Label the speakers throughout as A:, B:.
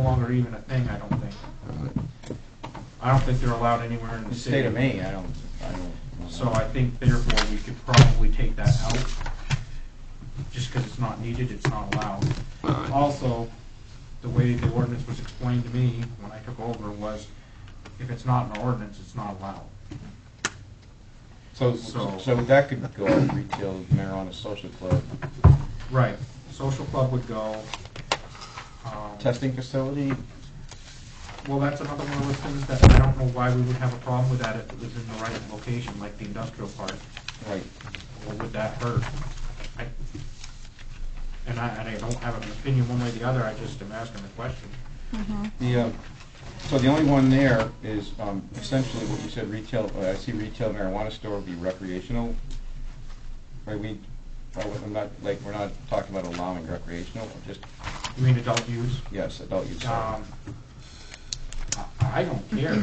A: longer even a thing, I don't think.
B: Alright.
A: I don't think they're allowed anywhere in
C: The
A: the city.
C: state of Maine, I don't, I don't. know.
A: So I think therefore we could probably take that out, just because it's not needed, it's not allowed.
B: Alright.
A: Also, the way the ordinance was explained to me when I took over was, if it's not an ordinance, it's not allowed.
C: So,
A: so-
C: so that could go on retail marijuana social club,
A: Right, social club would go. um,
C: testing facility,
A: Well, that's another one of those things that I don't know why we would have a problem with that if it was in the right location, like the industrial park.
C: right,
A: Or would that hurt? I- And I, and I don't have an opinion one way or the other, I just am asking the question.
C: the, uh, so the only one there is, um, essentially what you said, retail, uh, I see retail marijuana store would be recreational. Right, we, I would- I'm not, like, we're not talking about allowing recreational, just,
A: You mean adult use?
C: yes, adult use. sorry.
A: Um, I I don't care,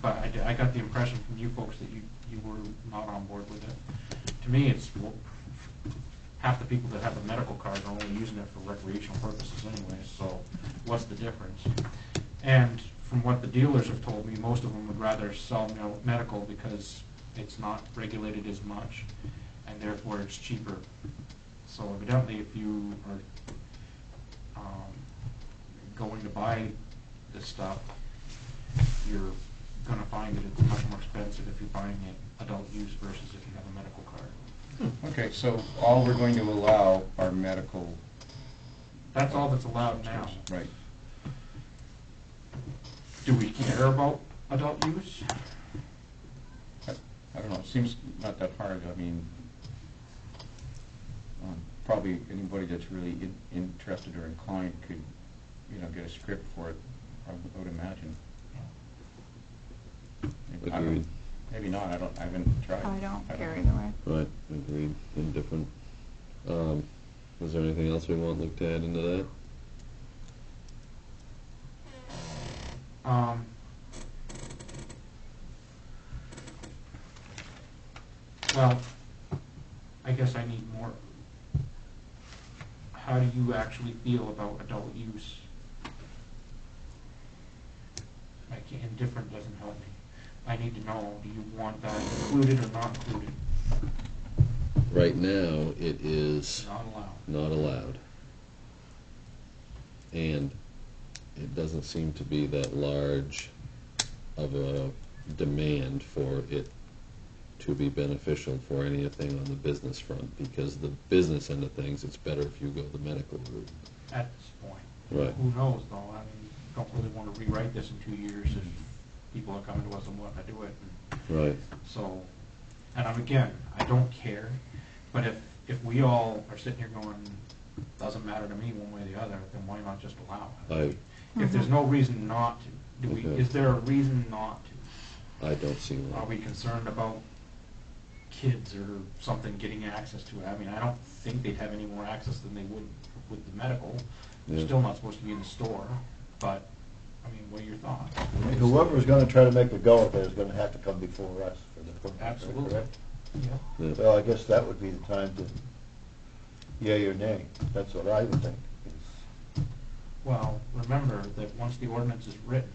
A: but I, d- I got the impression from you folks that you, you were not on board with it. To me, it's, well, half the people that have a medical card are only using it for recreational purposes anyway, so what's the difference? And from what the dealers have told me, most of them would rather sell mel- medical because it's not regulated as much, and therefore it's cheaper. So evidently, if you are um, going to buy this stuff, you're gonna find that it's much more expensive if you're buying it adult use versus if you have a medical card.
C: Okay, so all we're going to allow are medical.
A: That's all that's allowed now.
C: Right.
A: Do we care about adult use?
C: I I don't know, it seems not that hard, I mean, um, probably anybody that's really in- interested or inclined could, you know, get a script for it, I would- I would imagine. I don't-
B: Agreed.
C: Maybe not, I don't, I haven't tried.
D: I don't care
C: know.
D: either way.
B: Right, agreed, indifferent. Um, is there anything else we want Luke to add into that?
A: Um, Well, I guess I need more. How do you actually feel about adult use? Like, indifferent doesn't help me. I need to know, do you want that included or not included?
B: Right now, it is
A: Not allowed.
B: not allowed. And it doesn't seem to be that large of a demand for it to be beneficial for anything on the business front, because the business end of things, it's better if you go the medical route.
A: at this point.
B: Right.
A: Who knows, though, I mean, don't really wanna rewrite this in two years if people are coming to us and wanting to do it, and
B: Right.
A: so, and I'm, again, I don't care, but if, if we all are sitting here going, doesn't matter to me one way or the other, then why not just allow it?
B: I,
A: If there's no reason not to, do we,
B: Okay.
A: is there a reason not to?
B: I don't see
A: Are we
B: one.
A: concerned about kids or something getting access to it? I mean, I don't think they'd have any more access than they would with the medical. They're
B: Yeah.
A: still not supposed to be in the store, but, I mean, what are your thoughts?
E: Whoever's gonna try to make a go at it is gonna have to come before us for the permit.
A: Absolutely.
E: correct?
A: Yeah.
B: Yeah.
E: Well, I guess that would be the time to yea or nay. That's what I would think.
A: Well, remember that once the ordinance is written,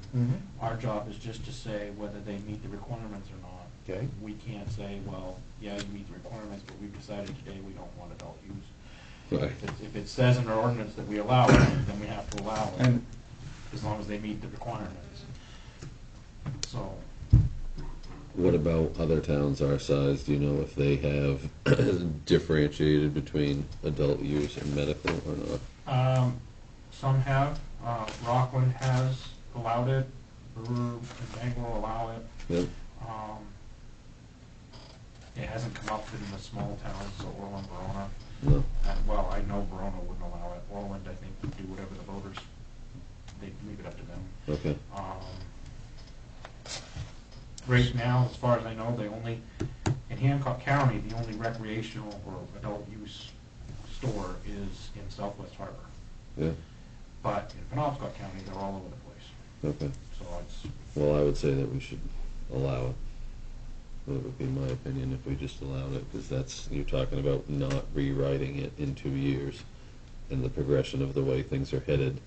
A: our job is just to say whether they meet the requirements or not.
E: Okay.
A: We can't say, well, yeah, you meet the requirements, but we've decided today we don't want adult use.
B: Right.
A: If it- If it says in our ordinance that we allow it, then we have to allow it.
C: And
A: as long as they meet the requirements. So,
B: What about other towns our size? Do you know if they have differentiated between adult use and medical or not?
A: um, some have, uh, Rockland has allowed it, Brewer and Bangor allow it.
B: Yep.
A: Um, it hasn't come up in the small towns, so Orland, Verona,
B: No.
A: uh, well, I know Verona wouldn't allow it, Orland, I think, would do whatever the voters, they'd leave it up to them.
B: Okay.
A: Um, Right now, as far as I know, they only, in Hancock County, the only recreational or adult use store is in Southwest Harbor.
B: Yeah.
A: But in Penobscot County, they're all over the place.
B: Okay.
A: So it's,
B: Well, I would say that we should allow it. That would be my opinion if we just allowed it, because that's, you're talking about not rewriting it in two years and the progression of the way things are headed.